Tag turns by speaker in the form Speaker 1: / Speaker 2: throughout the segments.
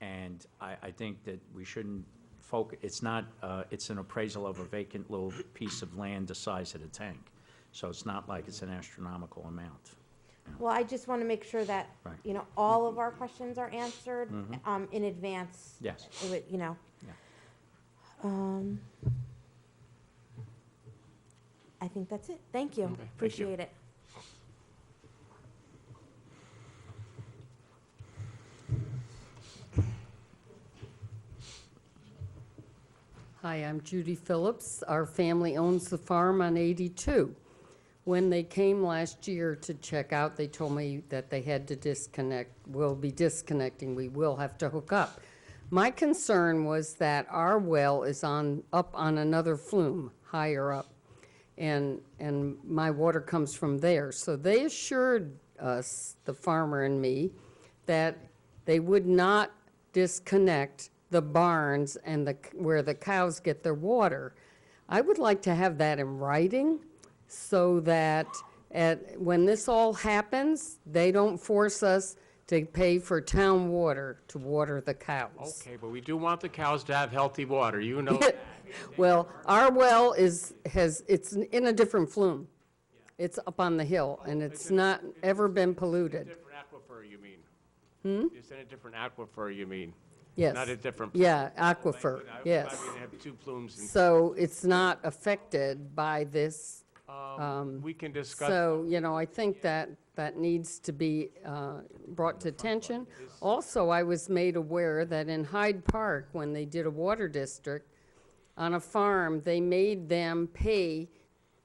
Speaker 1: And I, I think that we shouldn't foc, it's not, uh, it's an appraisal of a vacant little piece of land the size of the tank. So it's not like it's an astronomical amount.
Speaker 2: Well, I just want to make sure that,
Speaker 1: Right.
Speaker 2: you know, all of our questions are answered
Speaker 1: Mhm.
Speaker 2: um, in advance.
Speaker 1: Yes.
Speaker 2: It would- You know.
Speaker 1: Yeah.
Speaker 2: Um, I think that's it. Thank you.
Speaker 3: Okay, thank you.
Speaker 2: Appreciate it.
Speaker 4: Hi, I'm Judy Phillips. Our family owns the farm on 82. When they came last year to check out, they told me that they had to disconnect, will be disconnecting, we will have to hook up. My concern was that our well is on, up on another flume, higher up, and, and my water comes from there. So they assured us, the farmer and me, that they would not disconnect the barns and the, c- where the cows get their water. I would like to have that in writing so that at, when this all happens, they don't force us to pay for town water to water the cows.
Speaker 3: Okay, but we do want the cows to have healthy water, you know. that.
Speaker 4: Well, our well is, has, it's in a different flume. It's up on the hill and it's not ever been polluted.
Speaker 3: Different aquifer, you mean? Hmm? It's in a different aquifer, you mean?
Speaker 4: Yes.
Speaker 3: Not a different.
Speaker 4: Yeah, aquifer,
Speaker 3: I-
Speaker 4: yes.
Speaker 3: I mean, they have two plumes
Speaker 4: So it's not affected by this.
Speaker 3: and, um, we can discuss.
Speaker 4: So, you know, I think that, that needs to be uh, brought to attention. Also, I was made aware that in Hyde Park, when they did a water district, on a farm, they made them pay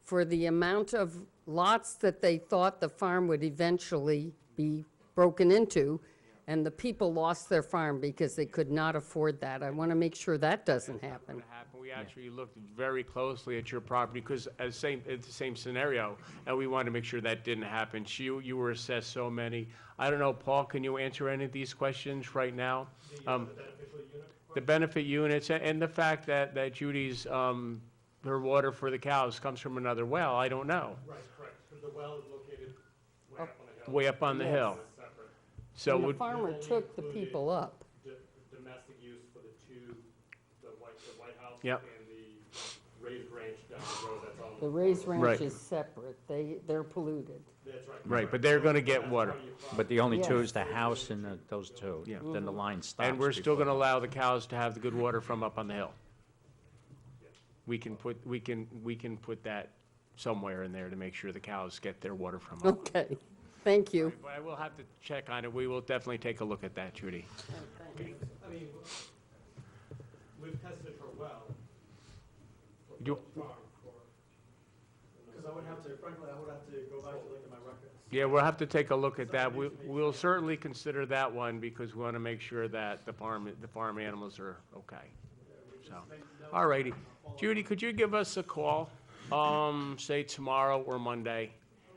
Speaker 4: for the amount of lots that they thought the farm would eventually be broken into, and the people lost their farm because they could not afford that. I want to make sure that doesn't happen.
Speaker 3: what happened. We actually looked very closely at your property, because as same, it's the same scenario, and we wanted to make sure that didn't happen. She, you were assessed so many. I don't know, Paul, can you answer any of these questions right now? Um, The benefit units, a- and the fact that, that Judy's, um, her water for the cows comes from another well, I don't know,
Speaker 5: Right, correct, because the well is located way up on the hill.
Speaker 3: way up on the hill.
Speaker 5: It's separate.
Speaker 3: So
Speaker 4: And the
Speaker 3: would,
Speaker 4: farmer took the people up.
Speaker 5: D- Domestic use for the two, the White, the White House.
Speaker 3: Yep.
Speaker 5: And the raised ranch down the road, that's on.
Speaker 4: The raised
Speaker 3: Right.
Speaker 4: ranch is separate. They, they're polluted.
Speaker 5: That's right.
Speaker 3: right, but they're gonna get water.
Speaker 1: But the only two
Speaker 4: Yeah.
Speaker 1: is the house and the- those two.
Speaker 3: Yeah.
Speaker 1: Then the line stops.
Speaker 3: And we're still
Speaker 1: before-
Speaker 3: gonna allow the cows to have the good water from up on the hill. We can put, we can, we can put that somewhere in there to make sure the cows get their water from up.
Speaker 4: Okay, thank you.
Speaker 3: But I will have to check on it. We will definitely take a look at that, Judy.
Speaker 5: I mean, we've tested her well
Speaker 3: You-
Speaker 5: farm for. Because I would have to, frankly, I would have to go back and look at my records.
Speaker 3: Yeah, we'll have to take a look at that. We, we'll certainly consider that one because we wanna make sure that the farm, the farm animals are okay. So, all righty. Judy, could you give us a call, um, say tomorrow or Monday?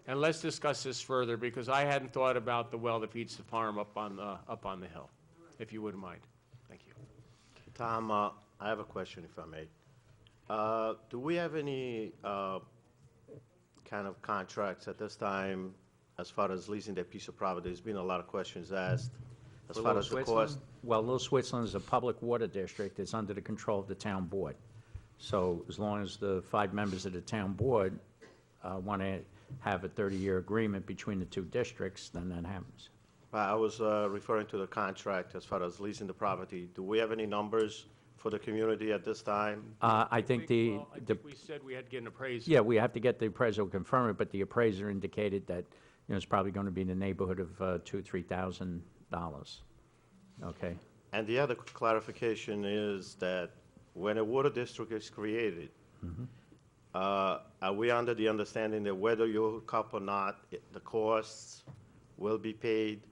Speaker 3: And let's discuss this further because I hadn't thought about the well that feeds the farm up on the, up on the hill, if you wouldn't mind. Thank you.
Speaker 6: Tom, uh, I have a question if I may. Uh, Do we have any uh, kind of contracts at this time as far as leasing that piece of property? There's been a lot of questions asked as
Speaker 1: Well,
Speaker 6: far
Speaker 1: Little
Speaker 6: as the
Speaker 1: Switzerland-
Speaker 6: cost.
Speaker 1: Well, Little Switzerland is a public water district, it's under the control of the town board. So as long as the five members of the town board want to have a 30-year agreement between the two districts, then that happens.
Speaker 6: I I was uh, referring to the contract as far as leasing the property. Do we have any numbers for the community at this time?
Speaker 1: Uh, I think the,
Speaker 3: Well, I
Speaker 1: the
Speaker 3: think we said we had to get an appraisal.
Speaker 1: yeah, we have to get the appraisal confirmed, but the appraiser indicated that, you know, it's probably going to be in the neighborhood of uh, two, $3,000. Okay?
Speaker 6: And the other clarification is that when a water district is created,
Speaker 1: Mm-hmm.
Speaker 6: uh, are we under the understanding that whether you hook up or not, it- the costs will be paid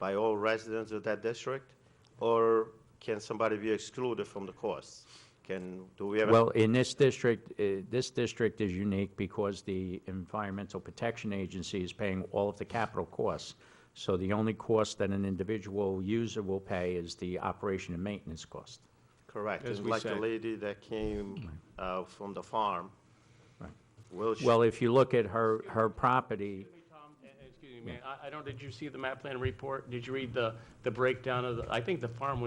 Speaker 6: by all residents of that district? Or can somebody be excluded from the costs? Can, do we have? a-
Speaker 1: Well, in this district, uh, this district is unique because the Environmental Protection Agency is paying all of the capital costs. So the only cost that an individual user will pay is the operation and maintenance cost.
Speaker 6: Correct.
Speaker 3: As
Speaker 6: It's
Speaker 3: we
Speaker 6: like the
Speaker 3: said.
Speaker 6: lady that came uh, from the farm.
Speaker 1: Right.
Speaker 6: Will she?
Speaker 1: Well, if you look at her, her property,
Speaker 3: Excuse me, Tom, and- and excuse me, man, I, I don't, did you see the map plan report? Did you read the, the breakdown of the, I think the farm